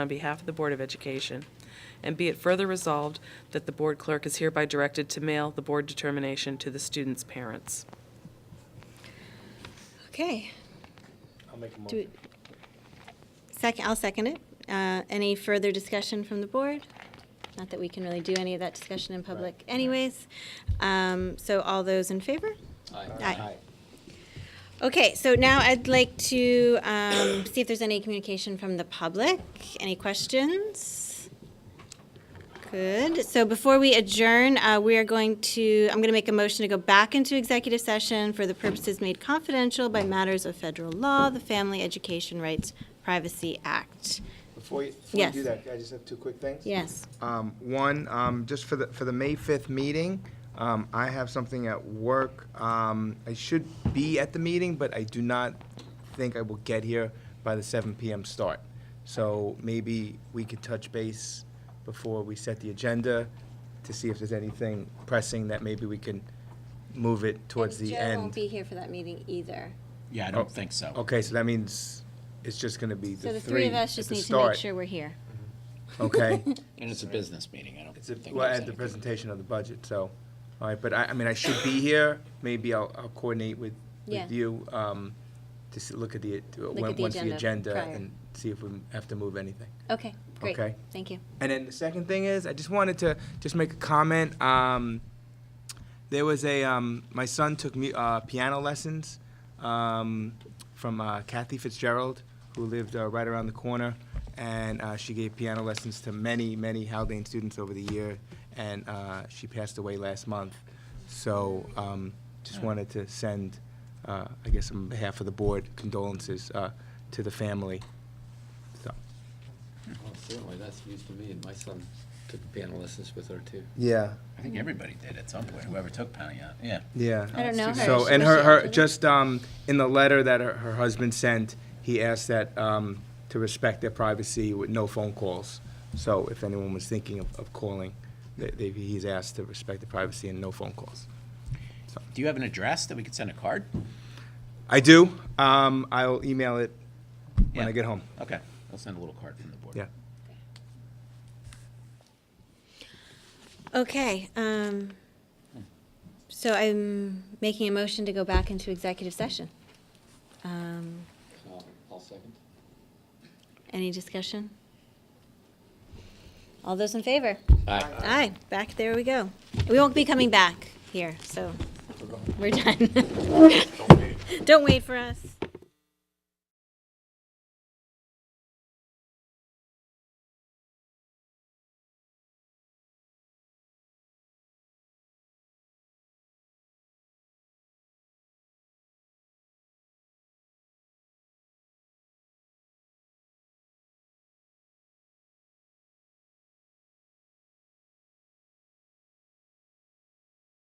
on behalf of the Board of Education. And be it further resolved that the board clerk is hereby directed to mail the board determination to the students' parents. Okay. I'll make a Do it. motion. Second, I'll second it. Uh, Any further discussion from the board? Not that we can really do any of that discussion in public Right, right. anyways. Um, So all those in favor? Aye. Aye. Okay, so now I'd like to um, see if there's any communication from the public. Any questions? Good. So before we adjourn, uh, we are going to, I'm going to make a motion to go back into executive session for the purposes made confidential by matters of federal law, the Family Education Rights Privacy Act. Before you, before you Yes. do that, I just have two quick things. Yes. Um, one, um, just for the, for the May fifth meeting, um, I have something at work. Um, I should be at the meeting, but I do not think I will get here by the seven PM start. So maybe we could touch base before we set the agenda to see if there's anything pressing that maybe we can move it towards the Joe won't end. be here for that meeting either. Yeah, I Oh, don't think so. Okay, so that means it's just gonna be So the the three three of at us the just need to make start. sure we're here. Okay. And it's a business meeting, I don't It's a, think. well, there's at the anything. presentation of the budget, so, all right, but I, I mean, I should be here, maybe I'll, I'll coordinate with, Yeah. with you, um, to s look at the, to- Look when- at the once the agenda agenda prior. and see if we have to move anything. Okay, great. Okay. Thank you. And then the second thing is, I just wanted to just make a comment. Um, there was a um, my son took mu- uh, piano lessons um, from uh, Kathy Fitzgerald, who lived uh, right around the corner, and uh, she gave piano lessons to many many Haldane students over the year, and uh, she passed away last month. So um, just wanted to send, uh, I guess, on behalf of the board, condolences uh, to the family. So. Well, certainly, that's news to me, and my son took piano lessons with her, too. Yeah. I think everybody did at some point, whoever took Pontiac, yeah. Yeah. I don't know her. So, She- and was her, she her, active? just, um, in the letter that her, her husband sent, he asked that, um, to respect their privacy with no phone calls. So if anyone was thinking of, of calling, they, they, he's asked to respect the privacy and no phone calls. Do you have an address that we could send a card? I do, um, I'll email it when I Yeah. get home, Okay, I'll send a little card from the board. yeah. Okay, um, so I'm making a motion to go back into executive session. Um, Uh, I'll second. any discussion? All those in favor? Aye. Aye, back, there we go. We won't be coming back here, so we're done. Don't wait for us.